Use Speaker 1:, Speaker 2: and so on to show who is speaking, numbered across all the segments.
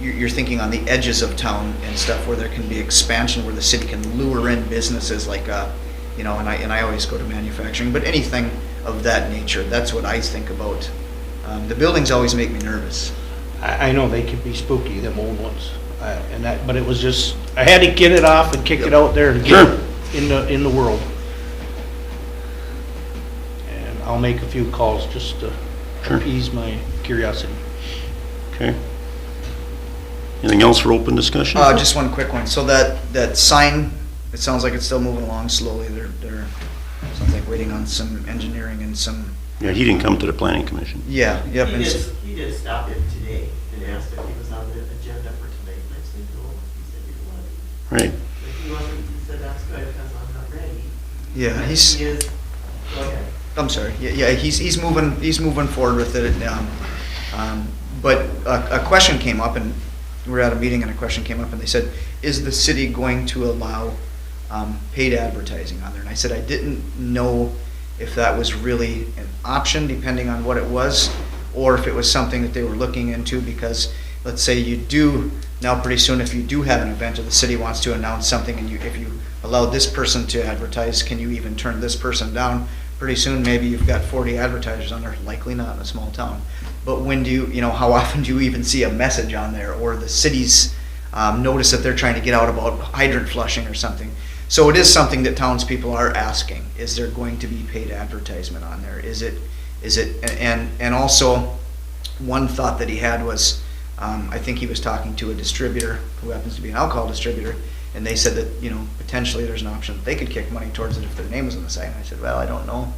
Speaker 1: you're, you're thinking on the edges of town and stuff where there can be expansion, where the city can lure in businesses like, uh, you know, and I, and I always go to manufacturing, but anything of that nature, that's what I think about. Um, the buildings always make me nervous. Uh,
Speaker 2: I, I know they can be spooky, them old ones, I- and that, but it was just, I had to get it off and kick it out there and get
Speaker 3: Sure.
Speaker 2: it in the, in the world. And I'll make a few calls just to
Speaker 3: Sure.
Speaker 2: appease my curiosity.
Speaker 3: Okay. Anything else for open discussion?
Speaker 1: Uh, just one quick one. So that, that sign, it sounds like it's still moving along slowly. They're, they're, sounds like waiting on some engineering and some,
Speaker 3: Yeah, he didn't come to the planning commission.
Speaker 1: yeah, yep.
Speaker 4: He
Speaker 1: and s-
Speaker 4: did, he did stop in today and asked if he was on the agenda for tonight, and I said, no, he said he wasn't.
Speaker 3: Right.
Speaker 4: If he wasn't, he said, that's good, because I'm not ready.
Speaker 1: Yeah,
Speaker 4: But
Speaker 1: Uh, he's.
Speaker 4: He is, go ahead.
Speaker 1: I'm sorry, yeah, yeah, he's, he's moving, he's moving forward with it, um, um, but a, a question came up, and we were at a meeting and a question came up, and they said, is the city going to allow, um, paid advertising on there? And I said, I didn't know if that was really an option, depending on what it was, or if it was something that they were looking into, because let's say you do, now pretty soon, if you do have an event, or the city wants to announce something, and you, if you allow this person to advertise, can you even turn this person down? pretty soon maybe you've got 40 advertisers on there likely not in a small town but when do you you know how often do you even see a message on there or the city's um, notice that they're trying to get out about hydrant flushing or something so it is something that townspeople are asking is there going to be paid advertisement on there is it is it and and also one thought that he had was, um, I think he was talking to a distributor who happens to be an alcohol distributor, and they said that, you know, potentially there's an option, that they could kick money towards it if their name was on the sign. I said, well, I don't know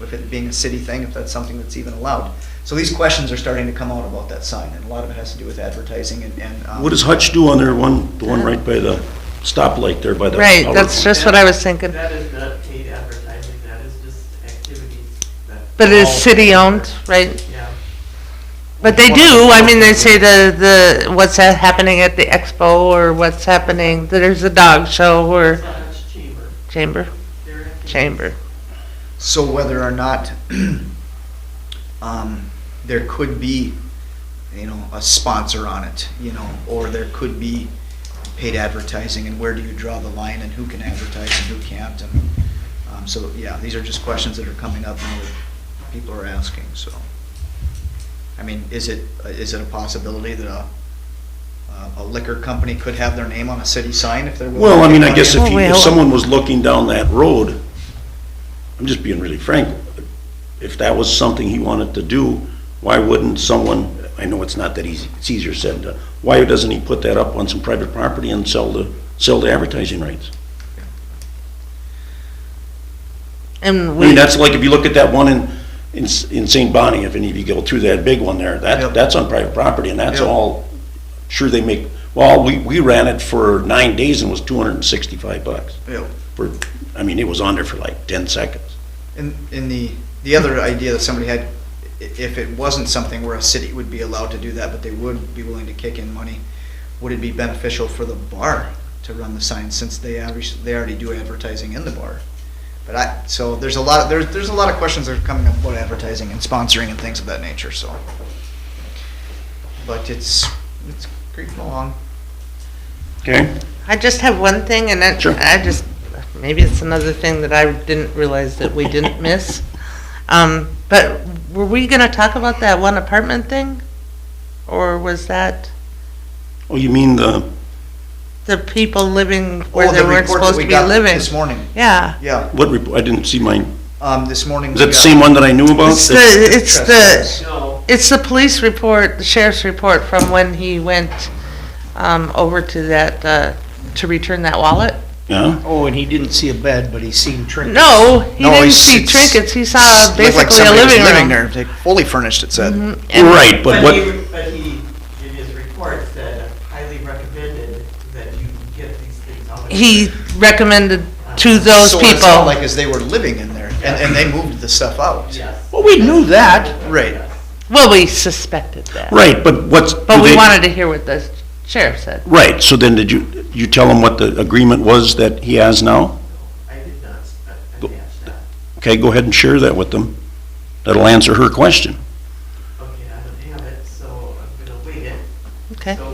Speaker 1: if it being a city thing, if that's something that's even allowed. So these questions are starting to come out about that sign, and a lot of it has to do with advertising and, and. um,
Speaker 3: What does Hutch do on there, one, the one right by the stoplight there by the.
Speaker 5: Right,
Speaker 3: outer-
Speaker 5: that's just what I was thinking.
Speaker 4: That is not paid advertising, that is just activities that,
Speaker 5: But it is
Speaker 1: Oh.
Speaker 5: city-owned, right?
Speaker 4: yeah.
Speaker 5: But they do, I mean, they say the, the, what's ha- happening at the expo, or what's happening, there's a dog show or
Speaker 4: It's not much chamber,
Speaker 5: chamber,
Speaker 4: they're activities.
Speaker 5: chamber.
Speaker 1: So whether or not um, there could be, you know, a sponsor on it, you know, or there could be paid advertising, and where do you draw the line, and who can advertise and who can't, and um, so yeah, these are just questions that are coming up and that people are asking. So, I mean, is it is it a possibility that a a liquor company could have their name on a city sign if they're willing
Speaker 3: Well,
Speaker 1: to
Speaker 3: I mean, I
Speaker 1: pay
Speaker 3: guess if
Speaker 5: Oh,
Speaker 1: money?
Speaker 3: you, if someone was looking down that road, I'm just being really frank, if that was something he wanted to do, why wouldn't someone, I know it's not that easy, it's easier said than done, why doesn't he put that up on some private property and sell the, sell the advertising rights?
Speaker 5: And
Speaker 3: I mean,
Speaker 5: we,
Speaker 3: that's like if you look at that one in, in, S- in St. Bonnie, if any of you go through that big one there,
Speaker 1: Yep.
Speaker 3: that, that's on private property and that's
Speaker 1: Yep.
Speaker 3: all, sure they make, well, we, we ran it for nine days and it was two hundred and sixty-five bucks
Speaker 1: Yeah.
Speaker 3: for, I mean, it was on there for like ten seconds.
Speaker 1: In, in the, the other idea that somebody had, i- if it wasn't something where a city would be allowed to do that, but they would be willing to kick in money, would it be beneficial for the bar to run the signs since they average, they already do advertising in the bar? But I, so there's a lot, there's, there's a lot of questions that are coming up about advertising and sponsoring and things of that nature, so. But it's, it's creeping along.
Speaker 3: Okay.
Speaker 5: I just have one thing, and that,
Speaker 3: Sure.
Speaker 5: I just, maybe it's another thing that I didn't realize that we didn't miss. Um, but were we gonna talk about that one apartment thing? Or was that
Speaker 3: Oh, you mean the,
Speaker 5: the people living
Speaker 1: Oh,
Speaker 5: where
Speaker 1: the
Speaker 5: they weren't
Speaker 1: report that
Speaker 5: supposed
Speaker 1: we
Speaker 5: to be
Speaker 1: got
Speaker 5: living?
Speaker 1: This morning,
Speaker 5: Yeah.
Speaker 1: yeah,
Speaker 3: what report, I didn't see mine,
Speaker 1: um, this morning.
Speaker 3: is
Speaker 1: we
Speaker 3: that the
Speaker 1: got-
Speaker 3: same one that I knew about?
Speaker 5: It's the, it's the,
Speaker 4: No,
Speaker 5: It's the police report, the sheriff's report from when he went um, over to that, uh, to return that wallet.
Speaker 3: Yeah,
Speaker 2: Oh, and he didn't see a bed, but he seen trinkets.
Speaker 5: No, he
Speaker 1: No,
Speaker 5: didn't
Speaker 1: he's-
Speaker 5: see
Speaker 1: it's-
Speaker 5: trinkets, he saw
Speaker 1: looked like
Speaker 5: Uh, basically a
Speaker 1: somebody was
Speaker 5: living
Speaker 1: Living
Speaker 5: room.
Speaker 1: there, like, fully furnished, it said.
Speaker 5: And-
Speaker 3: right, but
Speaker 4: but
Speaker 3: what,
Speaker 4: he, but he, in his report said highly recommended that you get these things out. of
Speaker 5: He
Speaker 4: here."
Speaker 5: recommended to those
Speaker 1: So what it sounded
Speaker 5: people,
Speaker 1: like is they were living in there, and, and they moved the stuff out.
Speaker 4: Yes.
Speaker 2: Well, we knew that.
Speaker 1: Right.
Speaker 5: well, we suspected that,
Speaker 3: right, but what's?
Speaker 5: but
Speaker 3: do
Speaker 5: we
Speaker 3: they-
Speaker 5: wanted to hear what the sheriff said.
Speaker 3: Right, so then did you, you tell him what the agreement was that he has now?
Speaker 4: I did not uh, attach that.
Speaker 3: Okay, go ahead and share that with them. That'll answer her question.
Speaker 4: Okay, I don't have it, so I'm gonna wait it.
Speaker 5: Okay.
Speaker 4: So